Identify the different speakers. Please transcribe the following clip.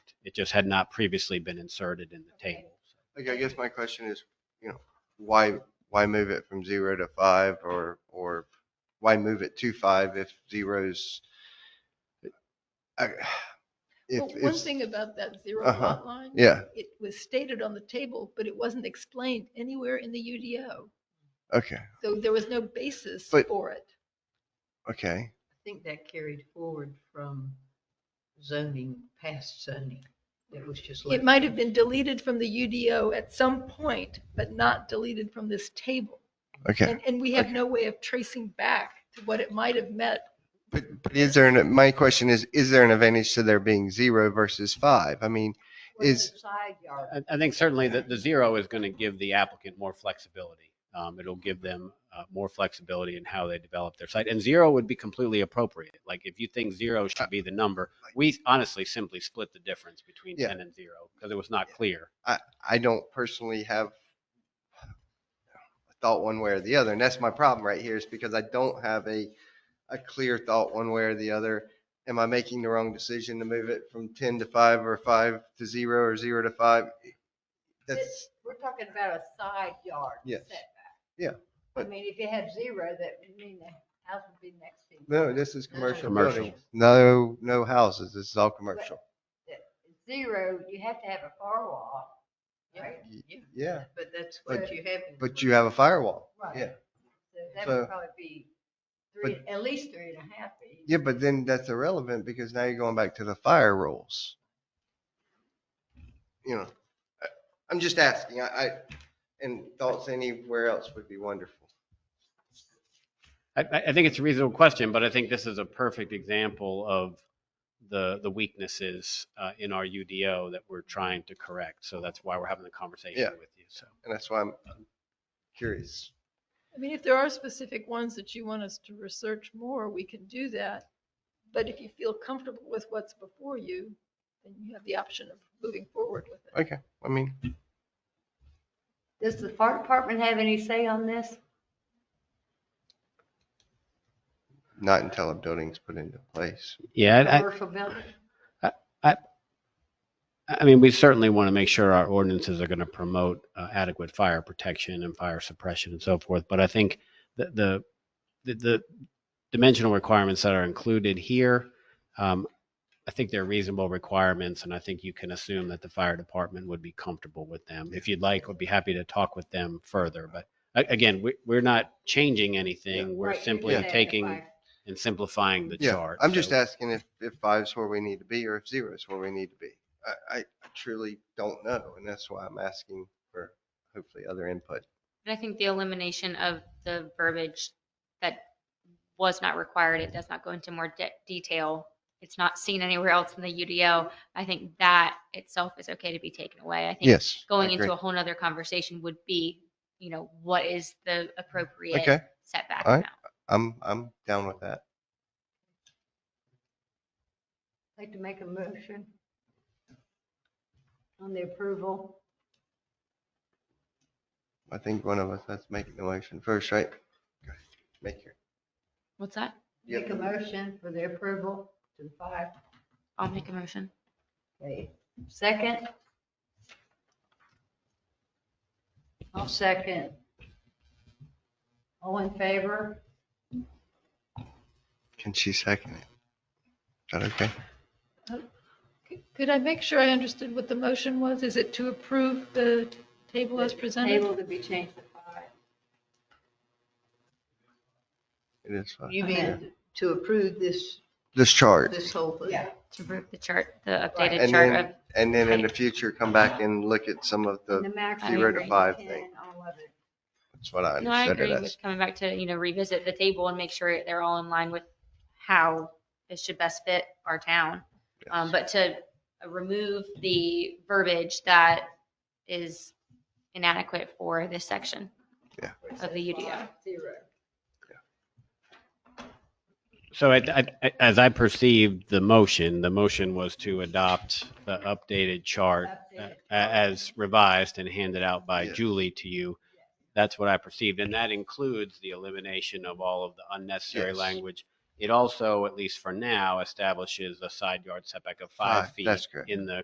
Speaker 1: It just had not previously been inserted in the table.
Speaker 2: Like, I guess my question is, you know, why, why move it from zero to five or, or why move it to five if zeros? I- If,
Speaker 3: Well, one
Speaker 2: if,
Speaker 3: thing about that zero
Speaker 2: Uh-huh.
Speaker 3: lot line.
Speaker 2: yeah,
Speaker 3: It was stated on the table, but it wasn't explained anywhere in the UDO.
Speaker 2: okay,
Speaker 3: So there was no basis
Speaker 2: But-
Speaker 3: for it.
Speaker 2: okay.
Speaker 4: I think that carried forward from zoning, past zoning. That was just.
Speaker 3: It
Speaker 4: left.
Speaker 3: might have been deleted from the UDO at some point, but not deleted from this table.
Speaker 2: Okay,
Speaker 3: And, and we have no way of tracing back to what it might have meant.
Speaker 2: but, but is there, an my question is, is there an advantage to there being zero versus five? I mean,
Speaker 4: Was
Speaker 2: is-
Speaker 4: it Side yard.
Speaker 1: I, I think certainly that the zero is going to give the applicant more flexibility. Um, it'll give them uh, more flexibility in how they develop their site. And zero would be completely appropriate. Like if you think
Speaker 2: Uh,
Speaker 1: zero should be the number, we honestly simply split the difference between
Speaker 2: Yeah.
Speaker 1: 10 and zero because it was not clear.
Speaker 2: I don't personally have a thought one way or the other. And that's my problem right here is because I don't have a, a clear thought one way or the other. Am I making the wrong decision to move it from 10 to 5 or 5 to 0 or 0 to 5? That's,
Speaker 4: We're talking about a side yard.
Speaker 2: Yes.
Speaker 4: setback.
Speaker 2: Yeah,
Speaker 4: I
Speaker 2: but-
Speaker 4: mean, if you had zero, that would mean the house would be next to. you.
Speaker 2: no, this is commercial
Speaker 1: Commercial.
Speaker 2: buildings. No, no houses. This is all commercial.
Speaker 4: Zero, you have to have a firewall, right?
Speaker 2: Yeah,
Speaker 4: But that's
Speaker 2: But-
Speaker 4: what you have. in
Speaker 2: but you have a firewall.
Speaker 4: Right.
Speaker 2: Yeah.
Speaker 4: So That
Speaker 2: so-
Speaker 4: would probably be three,
Speaker 2: but-
Speaker 4: at least three and a half feet.
Speaker 2: Yeah, but then that's irrelevant because now you're going back to the fire rules. You know, I- I'm just asking, I, I, and thoughts anywhere else would be wonderful.
Speaker 1: I, I I think it's a reasonable question, but I think this is a perfect example of the, the weaknesses uh, in our UDO that we're trying to correct. So that's why we're having the conversation
Speaker 2: Yeah.
Speaker 1: with you. So
Speaker 2: And that's why I'm curious.
Speaker 3: I mean, if there are specific ones that you want us to research more, we can do that. But if you feel comfortable with what's before you, then you have the option of moving forward with it.
Speaker 2: Okay, I mean,
Speaker 4: Does the fire department have any say on this?
Speaker 2: not until a building's put into place.
Speaker 1: yeah,
Speaker 4: Commercial building?
Speaker 1: I, I mean, we certainly want to make sure our ordinances are going to promote uh, adequate fire protection and fire suppression and so forth. But I think the, the, the, the dimensional requirements that are included here, um, I think they're reasonable requirements, and I think you can assume that the fire department would be comfortable with them. If you'd like, would be happy to talk with them further. But a- again, we, we're not changing anything. We're
Speaker 4: Right, you
Speaker 1: simply
Speaker 4: just have to
Speaker 1: taking
Speaker 4: fire.
Speaker 1: and simplifying the
Speaker 2: Yeah,
Speaker 1: chart.
Speaker 2: I'm just
Speaker 1: So-
Speaker 2: asking if, if five's where we need to be or if zero's where we need to be. I, I truly don't know, and that's why I'm asking for hopefully other input.
Speaker 5: But I think the elimination of the verbiage that was not required, it does not go into more de- detail. It's not seen anywhere else in the UDO. I think that itself is okay to be taken away. I think
Speaker 2: Yes. I
Speaker 5: going
Speaker 2: agree.
Speaker 5: into a whole nother conversation would be, you know, what is the appropriate
Speaker 2: Okay,
Speaker 5: setback
Speaker 2: All right.
Speaker 5: amount?
Speaker 2: I'm, I'm down with that.
Speaker 4: Like to make a motion on the approval?
Speaker 2: I think one of us has to make the motion first, right? Make your,
Speaker 5: What's that?
Speaker 2: Yep.
Speaker 4: Make a motion for the approval to the five.
Speaker 5: I'll make a motion.
Speaker 4: Okay, second? I'll second. All in favor?
Speaker 2: can she second it? Is that okay?
Speaker 3: C- Could I make sure I understood what the motion was? Is it to approve the table as presented?
Speaker 4: Table to be changed to five.
Speaker 2: It is fine.
Speaker 6: You
Speaker 4: Yeah.
Speaker 6: mean to approve this,
Speaker 2: This chart.
Speaker 6: this whole thing?
Speaker 4: Yeah.
Speaker 5: To approve the chart, the
Speaker 4: Right.
Speaker 5: updated
Speaker 2: And
Speaker 5: chart
Speaker 2: then,
Speaker 5: of,
Speaker 2: and then in the future, come back and look at some of
Speaker 4: And the
Speaker 2: the,
Speaker 4: maximum
Speaker 5: zero to
Speaker 4: is
Speaker 2: five
Speaker 4: 10,
Speaker 2: thing.
Speaker 4: all of it.
Speaker 2: that's what I
Speaker 5: no, I
Speaker 2: understood
Speaker 5: agree
Speaker 2: it
Speaker 5: with
Speaker 2: as.
Speaker 5: coming back to, you know, revisit the table and make sure they're all in line with how it should best fit our town. Um, but to remove the verbiage that is inadequate for this section of the UDO.
Speaker 4: Zero.
Speaker 1: So I, I- I- as I perceived the motion, the motion was to adopt the updated chart uh,
Speaker 4: Updated.
Speaker 1: as revised and handed out by
Speaker 2: Yes.
Speaker 1: Julie to you. That's what I perceived, and that includes the elimination of all of the unnecessary
Speaker 2: Yes.
Speaker 1: language. It also, at least for now, establishes a side yard setback of five
Speaker 2: Five,
Speaker 1: feet
Speaker 2: that's correct.
Speaker 1: in the